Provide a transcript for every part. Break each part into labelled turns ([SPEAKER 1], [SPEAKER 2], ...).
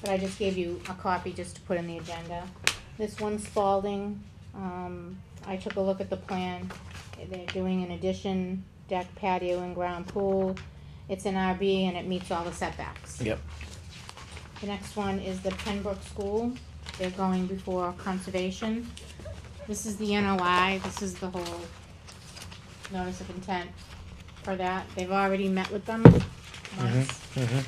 [SPEAKER 1] but I just gave you a copy just to put in the agenda. This one Spalding, um, I took a look at the plan. They're doing an addition, deck patio and ground pool. It's an RB and it meets all the setbacks.
[SPEAKER 2] Yep.
[SPEAKER 1] The next one is the Pembroke School. They're going before conservation. This is the NOI, this is the whole notice of intent for that. They've already met with them
[SPEAKER 2] Mm-hmm.
[SPEAKER 1] once,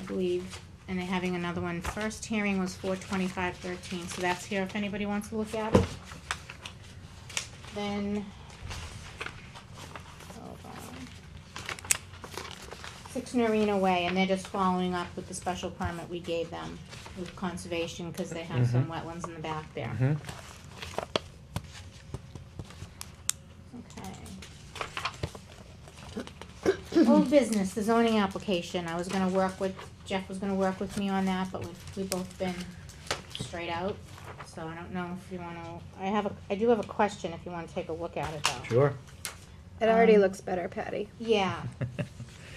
[SPEAKER 1] I believe, and they're having another one. First hearing was four twenty-five thirteen, so that's here if anybody wants to look at it. Then, hold on. Six Norina Way, and they're just following up with the special permit we gave them with conservation, cause they have some wetlands in the back there.
[SPEAKER 2] Mhm.
[SPEAKER 1] Okay. Old business, the zoning application, I was gonna work with, Jeff was gonna work with me on that, but we've, we've both been straight out, so I don't know if you wanna, I have a, I do have a question if you wanna take a look at it though.
[SPEAKER 2] Sure.
[SPEAKER 3] It already
[SPEAKER 1] Um,
[SPEAKER 3] looks better, Patty.
[SPEAKER 1] Yeah,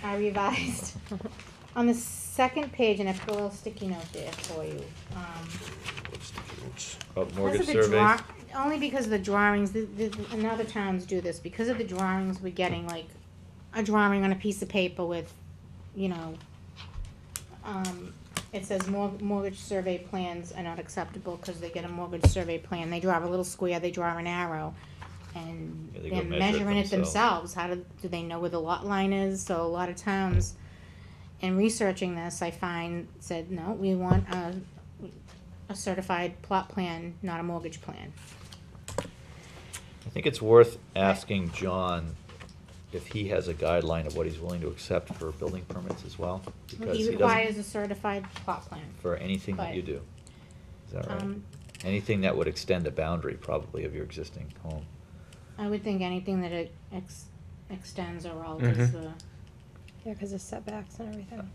[SPEAKER 1] I revised. On the second page, and I put a little sticky note there for you, um,
[SPEAKER 4] About
[SPEAKER 1] Because
[SPEAKER 4] mortgage
[SPEAKER 1] of the draw-
[SPEAKER 4] surveys?
[SPEAKER 1] Only because of the drawings, the, the, and other towns do this, because of the drawings, we're getting like a drawing on a piece of paper with, you know, um, it says mor- mortgage survey plans are not acceptable, cause they get a mortgage survey plan, they draw a little square, they draw an arrow. And
[SPEAKER 4] Yeah, they go
[SPEAKER 1] they're
[SPEAKER 4] measure it
[SPEAKER 1] measuring it themselves,
[SPEAKER 4] themselves.
[SPEAKER 1] how do, do they know where the lot line is, so a lot of towns, in researching this, I find, said, no, we want a a certified plot plan, not a mortgage plan.
[SPEAKER 4] I think it's worth asking John if he has a guideline of what he's willing to accept for building permits as well. because
[SPEAKER 1] He
[SPEAKER 4] doesn't-
[SPEAKER 1] requires a certified plot plan.
[SPEAKER 4] For anything that you
[SPEAKER 1] but,
[SPEAKER 4] do. Is that right?
[SPEAKER 1] Um,
[SPEAKER 4] Anything that would extend the boundary probably of your existing home.
[SPEAKER 1] I would think anything that it ex- extends or alters
[SPEAKER 2] Mhm.
[SPEAKER 4] Mm-hmm.
[SPEAKER 1] the,
[SPEAKER 3] Yeah, because of setbacks and everything.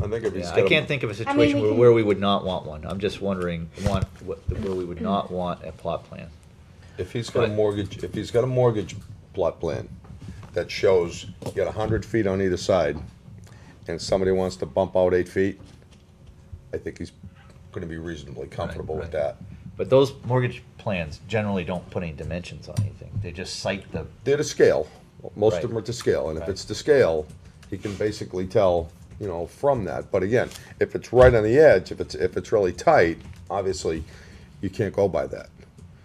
[SPEAKER 5] I think if he's
[SPEAKER 4] Yeah,
[SPEAKER 5] got
[SPEAKER 4] I
[SPEAKER 5] a-
[SPEAKER 4] can't think of a
[SPEAKER 1] mean,
[SPEAKER 4] situation
[SPEAKER 1] we
[SPEAKER 4] where,
[SPEAKER 1] can-
[SPEAKER 4] where we would not want one. I'm just wondering, want, what, where we would not want a plot plan.
[SPEAKER 5] If he's got a mortgage, if he's got a mortgage plot plan that shows you got a hundred feet on either side, and somebody wants to bump out eight feet, I think he's gonna be reasonably comfortable with
[SPEAKER 4] right.
[SPEAKER 5] that.
[SPEAKER 4] But those mortgage plans generally don't put any dimensions on anything. They just cite the,
[SPEAKER 5] They're to scale, most
[SPEAKER 4] Right.
[SPEAKER 5] of them are to scale, and if
[SPEAKER 4] Right.
[SPEAKER 5] it's to scale, he can basically tell, you know, from that, but again, if it's right on the edge, if it's, if it's really tight, obviously, you can't go by that.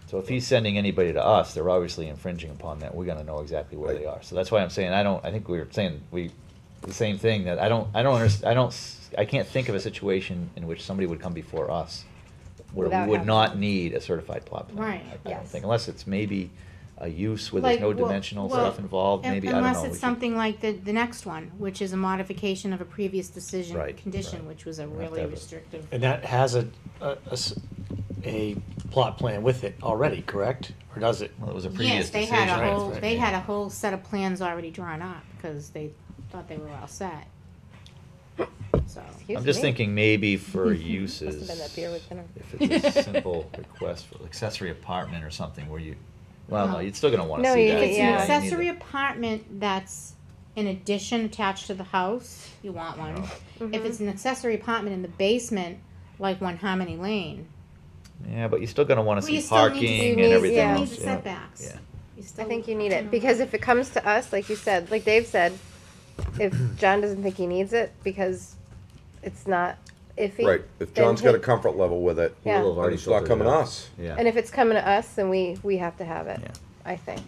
[SPEAKER 4] so if he's sending anybody to us, they're obviously infringing upon that. We're gonna know exactly where they are. So that's why I'm saying, I don't, I think we were saying, we, the same thing, that I don't, I don't understand, I don't, s- I can't think of a situation in which somebody would come before us where
[SPEAKER 3] Without
[SPEAKER 4] we would
[SPEAKER 3] having-
[SPEAKER 4] not need a certified plot plan.
[SPEAKER 1] Right,
[SPEAKER 4] I- I don't
[SPEAKER 3] yes.
[SPEAKER 4] think, unless it's maybe a use where there's
[SPEAKER 1] Like,
[SPEAKER 4] no
[SPEAKER 1] well-
[SPEAKER 4] dimensional
[SPEAKER 1] well,
[SPEAKER 4] stuff involved,
[SPEAKER 1] un-
[SPEAKER 4] maybe, I don't know.
[SPEAKER 1] unless
[SPEAKER 4] we
[SPEAKER 1] it's
[SPEAKER 4] could-
[SPEAKER 1] something like the, the next one, which is a modification of a previous decision,
[SPEAKER 4] Right,
[SPEAKER 1] condition,
[SPEAKER 4] right.
[SPEAKER 1] which was a
[SPEAKER 4] You have to
[SPEAKER 1] really
[SPEAKER 4] have a-
[SPEAKER 1] restrictive.
[SPEAKER 2] And that has a, a- a s- a plot plan with it already, correct? Or does it?
[SPEAKER 4] Well, it was a previous
[SPEAKER 1] Yes, they
[SPEAKER 4] decision.
[SPEAKER 1] had a
[SPEAKER 2] right,
[SPEAKER 1] whole,
[SPEAKER 2] right,
[SPEAKER 1] they
[SPEAKER 4] yeah.
[SPEAKER 1] had a whole set of plans already drawn up, because they thought they were all set. So,
[SPEAKER 3] Excuse
[SPEAKER 4] I'm just
[SPEAKER 3] me.
[SPEAKER 4] thinking maybe for
[SPEAKER 3] Must have
[SPEAKER 4] uses.
[SPEAKER 3] been that beer with dinner.
[SPEAKER 4] If it's a simple request for accessory apartment or something where you, well, no,
[SPEAKER 1] No.
[SPEAKER 4] you're still gonna wanna
[SPEAKER 3] No,
[SPEAKER 4] see
[SPEAKER 3] you-
[SPEAKER 4] that.
[SPEAKER 1] it's
[SPEAKER 3] yeah,
[SPEAKER 1] an
[SPEAKER 3] you need
[SPEAKER 1] accessory apartment that's an addition attached to the house, you want
[SPEAKER 4] Oh.
[SPEAKER 1] one. If it's an accessory apartment in the basement, like one Harmony Lane,
[SPEAKER 4] Yeah, but you're still gonna wanna
[SPEAKER 1] Well, you
[SPEAKER 4] see
[SPEAKER 1] still need to see-
[SPEAKER 4] parking
[SPEAKER 3] you
[SPEAKER 4] and
[SPEAKER 3] need-
[SPEAKER 4] everything
[SPEAKER 3] yeah.
[SPEAKER 4] else.
[SPEAKER 1] Needs the
[SPEAKER 4] yeah.
[SPEAKER 1] setbacks.
[SPEAKER 4] Yeah.
[SPEAKER 1] you still.
[SPEAKER 3] I think you need it because if it comes to us, like you said, like Dave said, if John doesn't think he needs it because it's not iffy.
[SPEAKER 5] Right, if
[SPEAKER 3] then
[SPEAKER 5] John's got a
[SPEAKER 3] he-
[SPEAKER 5] comfort level with it,
[SPEAKER 3] Yeah.
[SPEAKER 4] We'll have
[SPEAKER 5] then
[SPEAKER 4] already
[SPEAKER 5] it's not
[SPEAKER 4] filtered it
[SPEAKER 5] coming to
[SPEAKER 4] out.
[SPEAKER 5] us.
[SPEAKER 3] And
[SPEAKER 4] Yeah,
[SPEAKER 3] if it's coming to us, then we, we have to have it,
[SPEAKER 4] Yeah.
[SPEAKER 3] I think.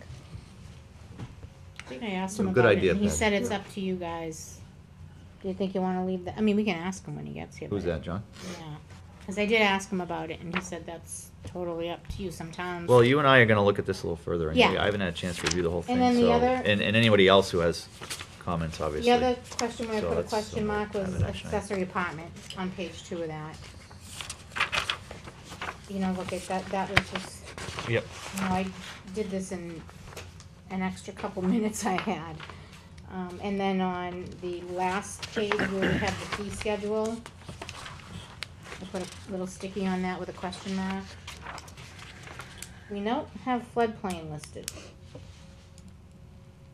[SPEAKER 1] I think I asked
[SPEAKER 4] So
[SPEAKER 1] him
[SPEAKER 4] good
[SPEAKER 1] about it,
[SPEAKER 4] idea,
[SPEAKER 1] and he
[SPEAKER 4] Patty.
[SPEAKER 1] said it's up to you guys. Do you think you wanna leave that, I mean, we can ask him when he gets here.
[SPEAKER 4] who's
[SPEAKER 1] but-
[SPEAKER 4] that, John?
[SPEAKER 1] Yeah, cause I did ask him about it, and he said that's totally up to you sometimes.
[SPEAKER 4] Well, you and I are gonna look at this a little further. anyway.
[SPEAKER 1] Yeah.
[SPEAKER 4] I haven't had a chance to review the whole thing,
[SPEAKER 1] then the
[SPEAKER 4] so,
[SPEAKER 1] other-
[SPEAKER 4] and, and anybody else who has comments, obviously.
[SPEAKER 1] The other question where I
[SPEAKER 4] So
[SPEAKER 1] put a
[SPEAKER 4] that's
[SPEAKER 1] question
[SPEAKER 4] somewhat
[SPEAKER 1] mark was
[SPEAKER 4] kind of an action item.
[SPEAKER 1] accessory apartment on page two of that. You know, look at that, that was just,
[SPEAKER 4] Yep.
[SPEAKER 1] you know, I did this in an extra couple minutes I had. Um, and then on the last page where we have the fee schedule, I put a little sticky on that with a question mark. We don't have floodplain listed.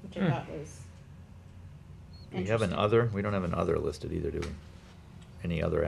[SPEAKER 1] Which I thought was
[SPEAKER 4] We have an
[SPEAKER 1] interesting.
[SPEAKER 4] other, we don't have an other listed either, do we? Any other